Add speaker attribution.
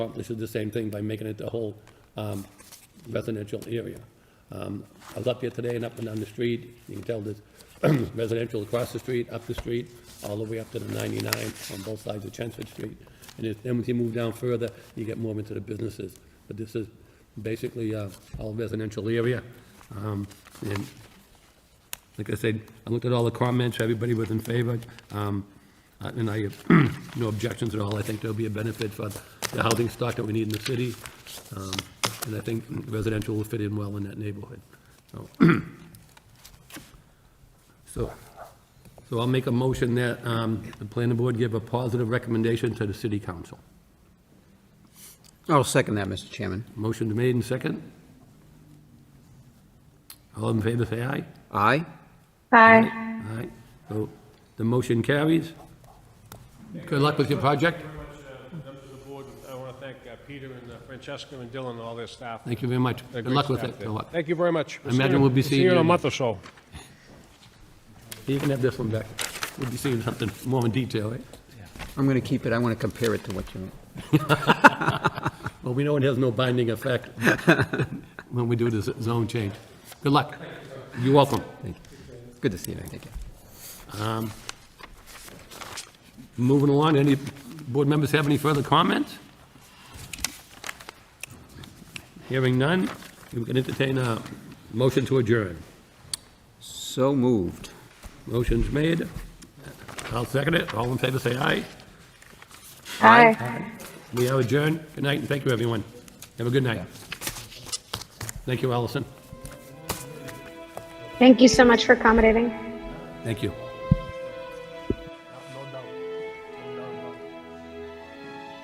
Speaker 1: accomplish the same thing by making it the whole um, residential area. Um, I was up here today and up and down the street, you can tell there's residential across the street, up the street, all the way up to the 99 on both sides of Chelmsford Street. And if- then when you move down further, you get more into the businesses. But this is basically uh, all residential area. Um, And like I said, I looked at all the comments, everybody was in favor, um, uh, and I have no objections at all. I think there'll be a benefit for the housing stock that we need in the city, um, and I think residential will fit in well in that neighborhood. So- So, so I'll make a motion that um, the planning board give a positive recommendation to the city council.
Speaker 2: I'll second that, Mr. Chairman.
Speaker 1: Motion made and second. All in favor, say aye.
Speaker 2: Aye?
Speaker 3: Aye.
Speaker 1: All right, so the motion carries. Good luck with your project.
Speaker 4: Very much, uh, members of the board, I want to thank uh, Peter and uh, Francesca and Dylan and all their staff.
Speaker 1: Thank you very much.
Speaker 4: They're
Speaker 1: Good
Speaker 4: great
Speaker 1: luck with
Speaker 4: staff
Speaker 1: it.
Speaker 4: there.
Speaker 1: Good luck.
Speaker 4: Thank you very much.
Speaker 1: I imagine we'll be seeing
Speaker 4: See you in
Speaker 1: you.
Speaker 4: a month or so.
Speaker 1: You can have this one back. We'll be seeing something more in detail, eh? right?
Speaker 2: I'm going to keep it, I want to compare it to what you,
Speaker 1: Well, we know it has no binding effect when we do this zone change. Good luck. You're welcome. Thank you.
Speaker 2: good to see you, thank you.
Speaker 1: Moving along, any board members have any further comments? Hearing none, we can entertain a motion to adjourn.
Speaker 2: So moved.
Speaker 1: Motion's made. I'll second it. All in favor, say aye.
Speaker 3: Aye.
Speaker 1: We are adjourned. Good night, and thank you, everyone. Have a good night. Thank you, Allison.
Speaker 3: Thank you so much for accommodating.
Speaker 1: Thank you.